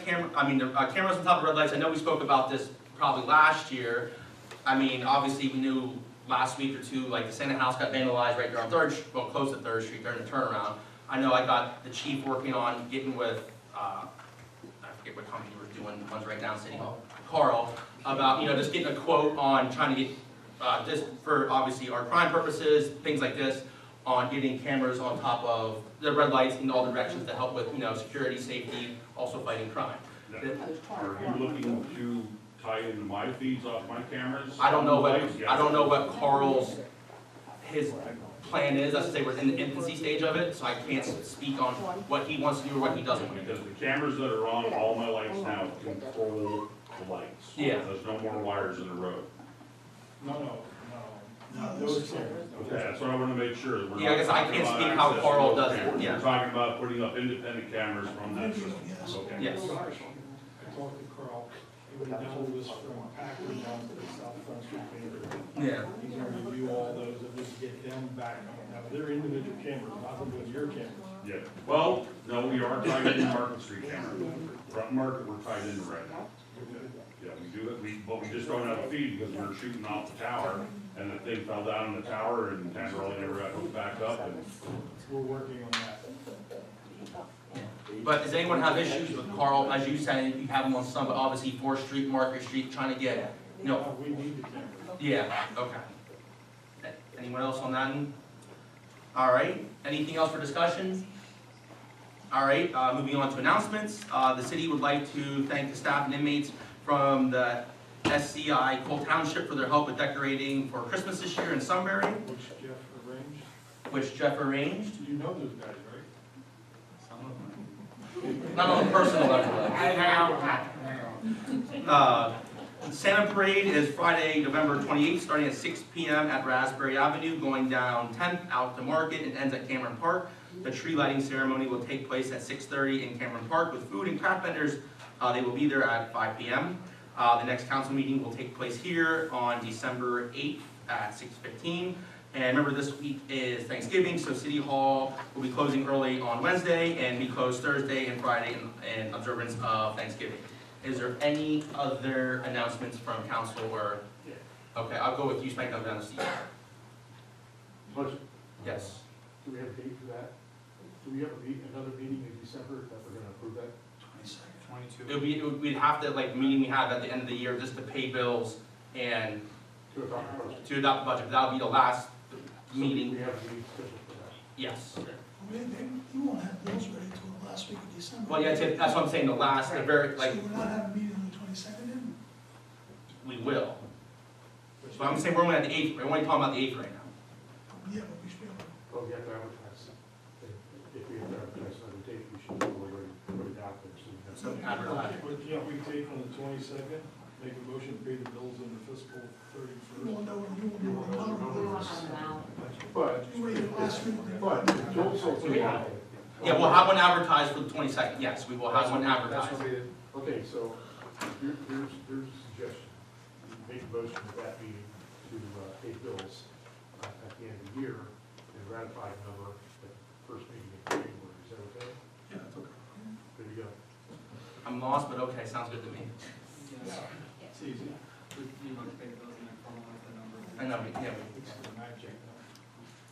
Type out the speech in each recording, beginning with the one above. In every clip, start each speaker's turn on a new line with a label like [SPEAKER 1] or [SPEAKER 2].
[SPEAKER 1] Camera, I mean, the uh, cameras on top of red lights, I know we spoke about this probably last year. I mean, obviously, we knew last week or two, like, the Senate House got vandalized right there on Third, Sh- well, close to Third Street during the turnaround. I know I got the chief working on getting with, uh, I forget what company we're doing, the ones right down City Hall, Carl, about, you know, just getting a quote on trying to get, uh, just for obviously our crime purposes, things like this, on getting cameras on top of the red lights in all directions to help with, you know, security, safety, also fighting crime.
[SPEAKER 2] Now, Are you looking to tie into my feeds off my cameras?
[SPEAKER 1] I don't know what,
[SPEAKER 2] Yes.
[SPEAKER 1] I don't know what Carl's, his plan is, I should say, we're in the infancy stage of it, so I can't speak on what he wants to do or what he doesn't want to do.
[SPEAKER 2] Because the cameras that are on all my lights now control the lights.
[SPEAKER 1] Yeah.
[SPEAKER 2] There's no more wires in the road.
[SPEAKER 3] No, no, no. No, those cameras.
[SPEAKER 2] Okay, that's what I wanna make sure. that we're
[SPEAKER 1] Yeah, I guess
[SPEAKER 2] not
[SPEAKER 1] I
[SPEAKER 2] talking
[SPEAKER 1] can't
[SPEAKER 2] about
[SPEAKER 1] speak how
[SPEAKER 2] access
[SPEAKER 1] Carl
[SPEAKER 2] road
[SPEAKER 1] does it,
[SPEAKER 2] cameras.
[SPEAKER 1] yeah.
[SPEAKER 2] We're talking about putting up independent cameras from that system. Okay.
[SPEAKER 1] Yes.
[SPEAKER 3] I talked to Carl, he would know this from Packard down to the South Front Street neighborhood.
[SPEAKER 1] Yeah,
[SPEAKER 3] He's gonna review all those and just get them back. Now, they're individual cameras, nothing with your cameras.
[SPEAKER 2] Yeah, well, no, we are tied into Market Street camera. Front Market, we're tied in right now. Yeah, we do it, we, but we just don't have a feed because we're shooting off the tower and the thing fell down in the tower and Tamara never got hooked back up and
[SPEAKER 3] We're working on that.
[SPEAKER 1] but does anyone have issues with Carl, as you said, you have him on some, but obviously Fourth Street, Market Street, trying to get, you know,
[SPEAKER 3] Uh, We need the cameras.
[SPEAKER 1] yeah, okay. Anyone else on that? end? All right, anything else for discussion? All right, uh, moving on to announcements, uh, the city would like to thank the staff and inmates from the SCI Cole Township for their help with decorating for Christmas this year in Sunbury,
[SPEAKER 3] Which Jeff arranged,
[SPEAKER 1] which Jeff arranged.
[SPEAKER 3] you know those guys, right?
[SPEAKER 1] Not on a personal level. Uh, Santa Parade is Friday, November 28th, starting at 6 PM at Raspberry Avenue, going down 10th out to Market and ends at Cameron Park. The tree lighting ceremony will take place at 6:30 in Cameron Park with food and craft vendors. Uh, They will be there at 5 PM. Uh, The next council meeting will take place here on December 8th at 6:15. And remember, this week is Thanksgiving, so City Hall will be closing early on Wednesday and be closed Thursday and Friday in, in observance of Thanksgiving. Is there any other announcements from council or? Okay, I'll go with you, Spank, I'll go down to Steve.
[SPEAKER 4] Question,
[SPEAKER 1] Yes.
[SPEAKER 4] do we have a date for that? Do we have a meet, another meeting in December that we're gonna approve that?
[SPEAKER 1] It would be, it would- we'd have to, like, meeting we have at the end of the year, just to pay bills and
[SPEAKER 4] To adopt the budget?
[SPEAKER 1] to adopt the budget. That would be the last meeting,
[SPEAKER 4] We have a meeting scheduled for that.
[SPEAKER 1] yes.
[SPEAKER 5] Well, they- You won't have bills ready till the last week of December.
[SPEAKER 1] Well, yeah, that's it. that's what I'm saying, the last, the very, like,
[SPEAKER 5] So we're not having a meeting on the twenty-second, then?
[SPEAKER 1] we will. But I'm saying we're only at the eighth, we're only talking about the eighth right now.
[SPEAKER 5] Yeah, but we should be able to.
[SPEAKER 4] But Oh, we have to advertise. If- If we have to advertise another date, we should probably already put it out there so we have.
[SPEAKER 1] So advertise.
[SPEAKER 3] But can't we take on the twenty-second, make a motion to pay the bills on the fiscal
[SPEAKER 5] We
[SPEAKER 3] thirty-first?
[SPEAKER 5] won't know, we won't know what color it
[SPEAKER 4] But,
[SPEAKER 5] is. You waited last week. to-
[SPEAKER 4] but it's also.
[SPEAKER 1] Yeah, we'll have one advertised for the twenty-second, yes, we will have one advertised.
[SPEAKER 4] Okay, so here, here's, here's a suggestion. You Make a motion at that meeting to uh, pay bills uh, at the end of the year and ratify a number at the first meeting in January. Is that okay?
[SPEAKER 5] Yeah, it's okay.
[SPEAKER 4] There you go.
[SPEAKER 1] I'm lost, but okay, sounds good to me.
[SPEAKER 3] It's easy,
[SPEAKER 6] You want to pay the bills and then follow up the number.
[SPEAKER 1] I know, we- yeah,
[SPEAKER 3] it's
[SPEAKER 1] we-
[SPEAKER 3] the magic.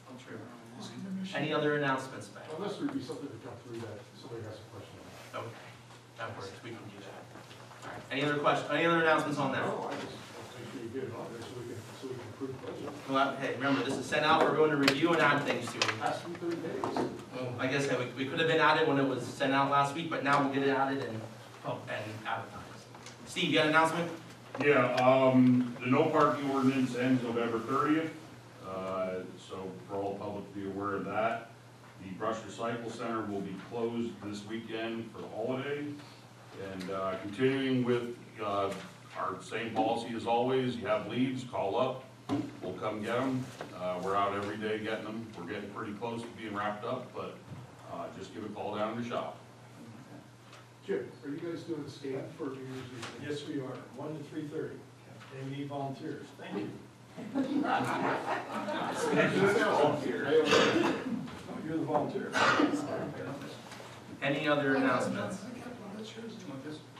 [SPEAKER 6] I'll try it around.
[SPEAKER 5] Just give them a shot.
[SPEAKER 1] Any other announcements, Ben?
[SPEAKER 4] Unless there'd be something to come through that somebody has a question on.
[SPEAKER 1] Okay, that works, we can do that. All right, Any other question, any other announcements on that?
[SPEAKER 4] No, I just, want to make sure you get it on there so we can, so we can approve the budget.
[SPEAKER 1] Well, hey, remember, this is sent out for everyone to review and add things to.
[SPEAKER 4] Ask them thirty days.
[SPEAKER 1] I guess that we, we could have been added when it was sent out last week, but now we'll get it added and, and advertised. Steve, you got an announcement?
[SPEAKER 2] Yeah, um, the no parking ordinance ends November thirtieth, uh, so for all the public to be aware of that. The Brush Recycle Center will be closed this weekend for the holiday. And, uh, continuing with, uh, our same policy as always, you have leaves, call up, we'll come get them. Uh, we're out every day getting them, we're getting pretty close to being wrapped up, but, uh, just give a call down to shop.
[SPEAKER 4] Jim, are you guys doing the scan for New Year's Eve?
[SPEAKER 3] Yes, we are, one to three thirty, and we need volunteers, thank you. You're the volunteer.
[SPEAKER 1] Any other announcements?
[SPEAKER 5] I kept one, I chairs.
[SPEAKER 6] Do you want this?